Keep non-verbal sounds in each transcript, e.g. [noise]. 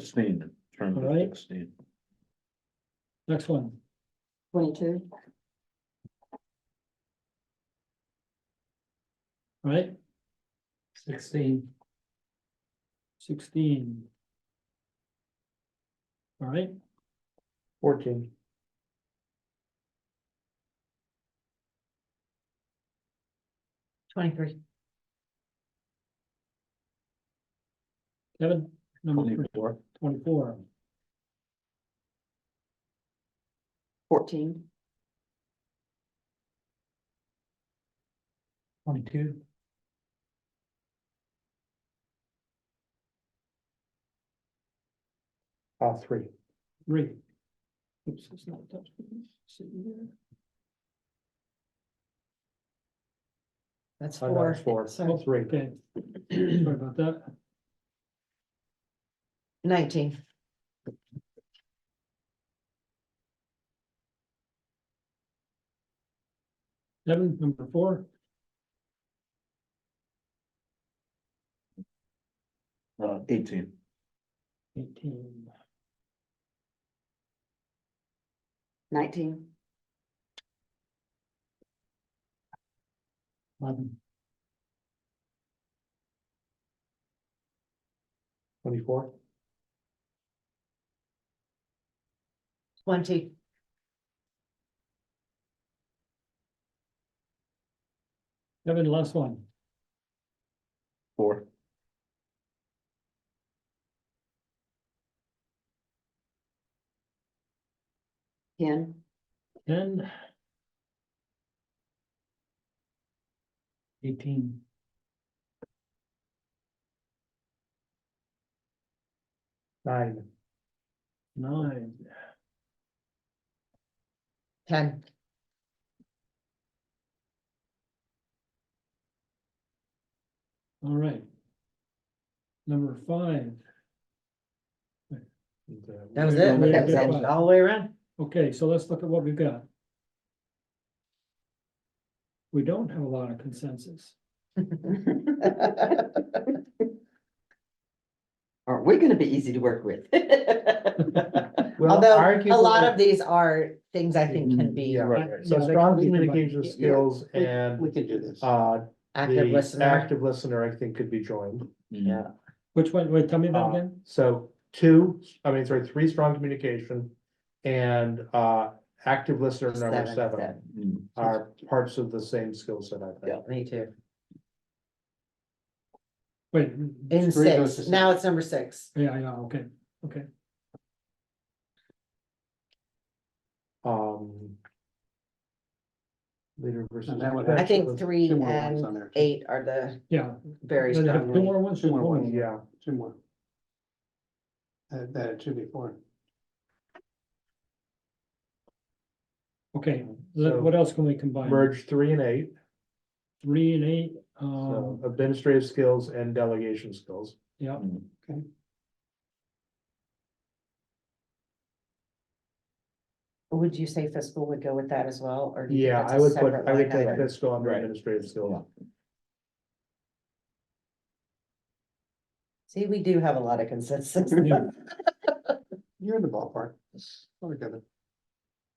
Sixteen, term All of right. sixteen. Next one, twenty-two, all right? sixteen, Sixteen. All right, fourteen, twenty-three, Kevin, number Twenty-four. twenty-four, fourteen, twenty-two, uh, three, three, oops, it's not touched. See here. That's I know four, Oh, it's four, Sorry. three, okay. Sorry about that, nineteen, Kevin, number four, Uh, eighteen. eighteen, nineteen, eleven, twenty-four, twenty, Kevin, last one, Four. ten, ten, eighteen, nine, nine, ten, all right. Number five, and, uh, that was it, Yeah, that was yeah, it, yeah. all the way around, okay, so let's look at what we've got. We don't have a lot of consensus. Aren't we gonna be easy to work with? well, Although, a lot arguably- of these are things I think can be Yeah, Right, right. So Yeah, they strong can be combined. communication Yeah. skills and, We can do this. uh, active the listener, active listener, I think, could be joined. Mm, Which one, wait, tell me that Uh, again, So two, I mean, sorry, three strong communication and, uh, active listener number Seven, seven seven. mm. are parts of the same skill set, I think. me too, wait, in Three goes to six, now it's number six, yeah, yeah, okay, okay. Um. Leader versus. And that would have- I think Actually, three Two more ones on and there. eight are the Yeah, very does it have two strongly, more ones? Two more Oh, ones. Yeah, Two more. That, that it should be four. Okay, let- what else can we combine? merge three and eight, Three and eight, so um, administrative skills and delegation skills. yeah, would you say fiscal would go with that as well, or? do you think Yeah, that's a I would put, separate I would line put item? fiscal under Right. administrative skills. See, we do have a lot of consensus. Yeah. You're in the ballpark. Oh, we got it.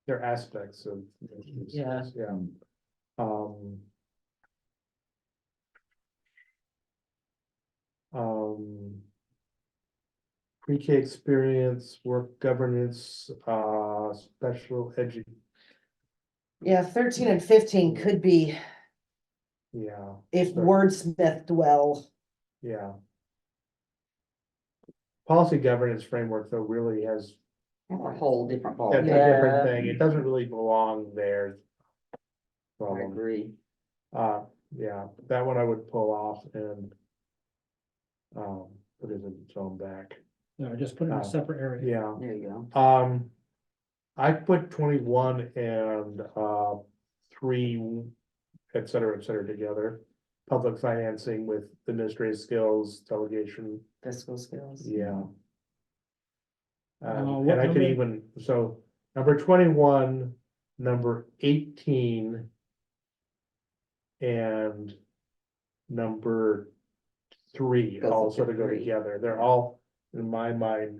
They're aspects of. those Yeah. skills, Yeah, um. Um. Pre-K experience, work governance, uh, special edu, [laughs] Yeah, thirteen and fifteen could be yeah, if Sure. wordsmithed well, yeah. Policy governance framework though really has a whole different that's a ballgame. different Yeah. thing, it doesn't really belong there. I Problem. agree. Uh, yeah, that one I would pull off and. Um, put it in its own back, no, just put it in Oh, a separate area. yeah, There you go. um. I put twenty-one and, uh, three, et cetera, et cetera, together. Public financing with administrative skills, delegation, Fiscal skills. yeah. Uh, Um, what and I could number? even, so, number twenty-one, number eighteen. And number three Both of all the sort of go three. together, they're all in my mind,